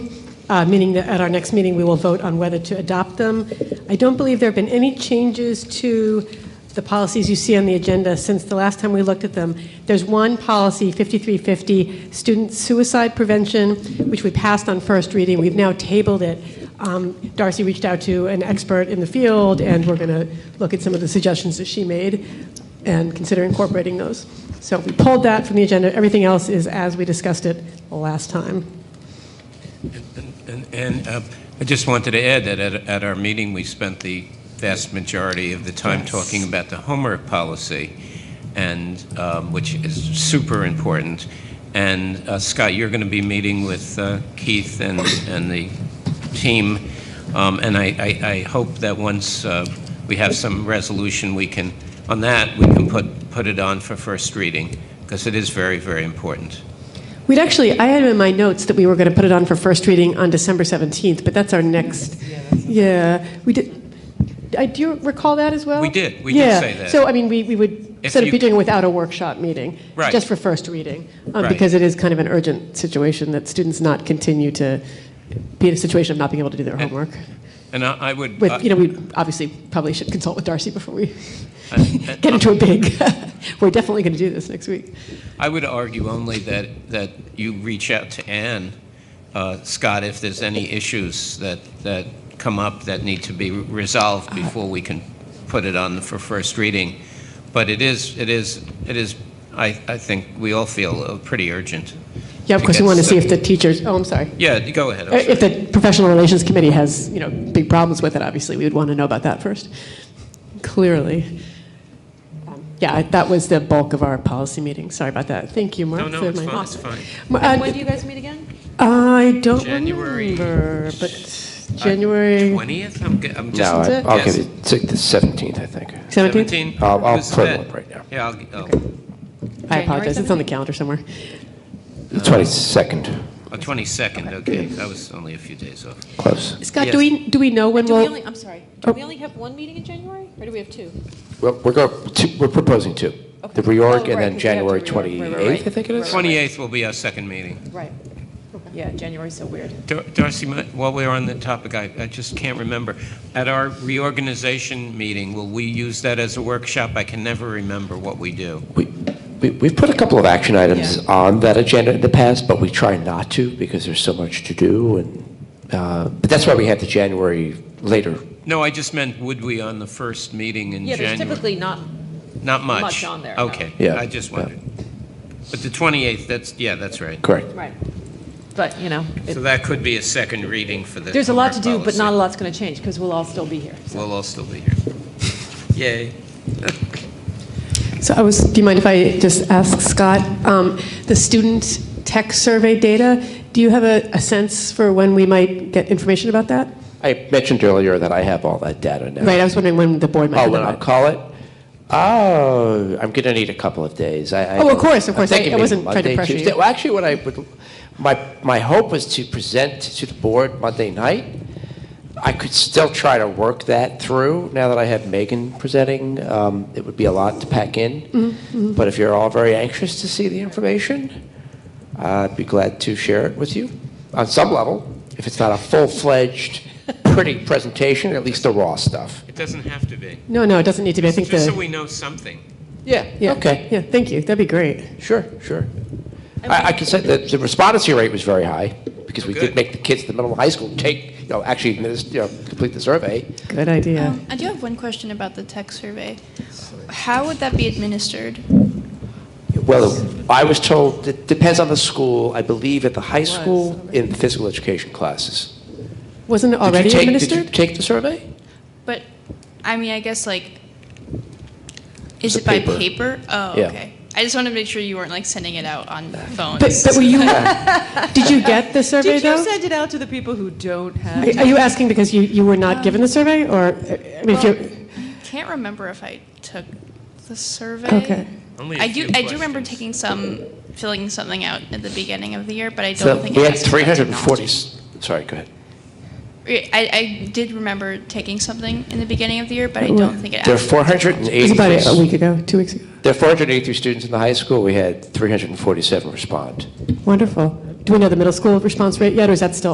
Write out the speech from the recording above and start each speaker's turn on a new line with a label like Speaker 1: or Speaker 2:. Speaker 1: uh, meaning that at our next meeting, we will vote on whether to adopt them. I don't believe there have been any changes to the policies you see on the agenda since the last time we looked at them. There's one policy, 5350, student suicide prevention, which we passed on first reading. We've now tabled it. Um, Darcy reached out to an expert in the field, and we're going to look at some of the suggestions that she made and consider incorporating those. So we pulled that from the agenda. Everything else is as we discussed it last time.
Speaker 2: And- And uh, I just wanted to add that at- at our meeting, we spent the vast majority of the time talking about the homework policy, and, um, which is super important. And uh, Scott, you're going to be meeting with uh, Keith and and the team, Um, and I- I I hope that once uh, we have some resolution, we can, on that, we can put put it on for first reading, because it is very, very important.
Speaker 1: We'd actually, I had in my notes that we were going to put it on for first reading on December 17th, but that's our next, yeah, we did, I- do you recall that as well?
Speaker 2: We did. We did
Speaker 1: Yeah.
Speaker 2: say that.
Speaker 1: So, I mean, we, we would
Speaker 2: If
Speaker 1: sort of
Speaker 2: you-
Speaker 1: be doing it without a workshop meeting.
Speaker 2: Right.
Speaker 1: Just for first reading, um,
Speaker 2: Right.
Speaker 1: because it is kind of an urgent situation that students not continue to be in a situation of not being able to do their homework.
Speaker 2: And I I would... uh,
Speaker 1: With, you know, we obviously probably should consult with Darcy before we
Speaker 2: I-
Speaker 1: get into a big, we're definitely going to do this next week.
Speaker 2: I would argue only that, that you reach out to Ann, uh, Scott, if there's any issues that, that come up that need to be resolved
Speaker 1: Uh-huh.
Speaker 2: before we can put it on for first reading. But it is, it is, it is, I, I think we all feel uh, pretty urgent.
Speaker 1: Yeah, of
Speaker 2: to
Speaker 1: course, we
Speaker 2: get
Speaker 1: want to
Speaker 2: stu-
Speaker 1: see if the teachers, oh, I'm sorry.
Speaker 2: Yeah, go ahead. I'm
Speaker 1: Uh,
Speaker 2: sorry.
Speaker 1: If the Professional Relations Committee has, you know, big problems with it, obviously, we would want to know about that first, clearly. Um, Yeah, I- that was the bulk of our policy meeting, sorry about that. Thank you, Mark.
Speaker 2: No, no,
Speaker 1: for
Speaker 2: it's
Speaker 1: my-
Speaker 2: fine, it's fine.
Speaker 1: Ma- uh,
Speaker 3: When do you guys meet again?
Speaker 1: I don't
Speaker 2: January-
Speaker 1: remember, but Uh, January
Speaker 2: 20th? Uh, I'm, ge- I'm
Speaker 4: No,
Speaker 2: just...
Speaker 4: I-
Speaker 1: Isn't it?
Speaker 4: I'll give
Speaker 2: Yes.
Speaker 4: you, it's like the 17th, I think.
Speaker 1: 17th?
Speaker 4: I'll- I'll
Speaker 2: Who's
Speaker 4: put
Speaker 2: that?
Speaker 4: one right now.
Speaker 2: Yeah, I'll, oh,
Speaker 1: I
Speaker 3: January
Speaker 1: apologize, it's on the calendar somewhere.
Speaker 4: The
Speaker 3: Uh,
Speaker 4: 22nd,
Speaker 2: oh, 22nd, okay. That was only a few days off.
Speaker 4: close.
Speaker 1: Scott,
Speaker 2: Yes.
Speaker 1: do we, do we know when
Speaker 3: Do we
Speaker 1: we'll?
Speaker 3: only, I'm sorry, do we only have one meeting in January, or do we have two?
Speaker 4: Well, We're going, two- we're proposing two.
Speaker 3: Okay.
Speaker 4: The
Speaker 3: Oh, right, 'cause
Speaker 4: reorg and
Speaker 3: we
Speaker 4: then
Speaker 3: have
Speaker 4: January
Speaker 3: to reorg, right, right, right.
Speaker 4: 28th, I think it is.
Speaker 3: Right.
Speaker 2: 28th will be our second meeting.
Speaker 3: Right. Yeah, January's so weird.
Speaker 2: Dar- Darcy, my- while we're on the topic, I, I just can't remember. At our reorganization meeting, will we use that as a workshop? I can never remember what we do.
Speaker 4: We- we- We've put a couple of action items
Speaker 3: Yeah.
Speaker 4: on that agenda in the past, but we try not to because there's so much to do. And, uh, but that's why we had the January later.
Speaker 2: No, I just meant, would we on the first meeting in
Speaker 3: Yeah,
Speaker 2: January?
Speaker 3: there's typically not,
Speaker 2: Not much.
Speaker 3: much on there, no.
Speaker 2: Okay.
Speaker 4: Yeah,
Speaker 2: I just
Speaker 4: yeah.
Speaker 2: wondered. But the 28th, that's, yeah, that's right.
Speaker 4: Correct.
Speaker 3: right, but, you know, it-
Speaker 2: So that could be a second reading for the.
Speaker 3: there's a lot to do,
Speaker 2: homework
Speaker 3: but not a
Speaker 2: policy.
Speaker 3: lot's going to change, because we'll all still be here. so.
Speaker 2: We'll all still be here. Yay.
Speaker 1: So I was, do you mind if I just ask Scott, um, the student tech survey data, do you have a, a sense for when we might get information about that?
Speaker 4: I mentioned earlier that I have all that data now.
Speaker 1: Right, I was wondering when the board might.
Speaker 4: Oh,
Speaker 1: have
Speaker 4: when I
Speaker 1: that.
Speaker 4: call it? Oh, I'm going to need a couple of days. I, I
Speaker 1: Oh, of course, of
Speaker 4: I'm
Speaker 1: course. I-
Speaker 4: thinking
Speaker 1: I
Speaker 4: maybe
Speaker 1: wasn't trying to
Speaker 4: Monday,
Speaker 1: pressure you.
Speaker 4: Tuesday. Well, actually, what I would, my, my hope was to present to the board Monday night. I could still try to work that through now that I have Megan presenting. Um, it would be a lot to pack in.
Speaker 1: Mm-hmm,
Speaker 4: But if you're all very anxious to see the information, I'd be glad to share it with you on some level. If it's not a full fledged, pretty presentation, at least the raw stuff.
Speaker 2: It doesn't have to be.
Speaker 1: No, no, it doesn't need to be. I think
Speaker 2: Just so
Speaker 1: the,
Speaker 2: we know something.
Speaker 4: Yeah,
Speaker 1: yeah,
Speaker 4: okay.
Speaker 1: yeah, thank you, that'd be great.
Speaker 4: Sure, sure. I, I can say that the respondency rate was very high, because we
Speaker 2: Good.
Speaker 4: did make the kids at the middle of high school take, you know, actually, adminis- you know, complete the survey.
Speaker 1: Good idea.
Speaker 5: Um, I do have one question about the tech survey. How would that be administered?
Speaker 4: Well, I was told, it depends on the school, I believe at the high school, in the physical education classes.
Speaker 1: Wasn't it
Speaker 4: Did you
Speaker 1: already
Speaker 4: take- Did you
Speaker 1: administered?
Speaker 4: take the survey?
Speaker 5: But, I mean, I guess like,
Speaker 4: It's
Speaker 5: is
Speaker 4: a
Speaker 5: it by
Speaker 4: paper.
Speaker 5: paper? Oh,
Speaker 4: Yeah.
Speaker 5: okay. I just wanted to make sure you weren't like sending it out on phones.
Speaker 1: But, but were you, did you get the survey
Speaker 3: Did you
Speaker 1: though?
Speaker 3: send it out to the people who don't have?
Speaker 1: Are are you asking because you, you were not given the survey, or, I mean, if
Speaker 5: Well,
Speaker 1: you're,
Speaker 5: Can't remember if I took the survey.
Speaker 1: Okay.
Speaker 2: Only a
Speaker 5: I do,
Speaker 2: few
Speaker 5: I do remember
Speaker 2: questions.
Speaker 5: taking some, filling something out at the beginning of the year, but I
Speaker 4: So
Speaker 5: don't think.
Speaker 4: we
Speaker 5: it
Speaker 4: had
Speaker 5: was about
Speaker 4: 340,
Speaker 5: technology.
Speaker 4: sorry, go ahead.
Speaker 5: I, I did remember taking something in the beginning of the year, but I don't think it.
Speaker 4: There are
Speaker 5: actually-
Speaker 4: 483.
Speaker 1: it was about a week ago, two weeks ago?
Speaker 4: There are 483 students in the high school, we had 347 respond.
Speaker 1: Wonderful. Do we know the middle school response rate yet, or is that still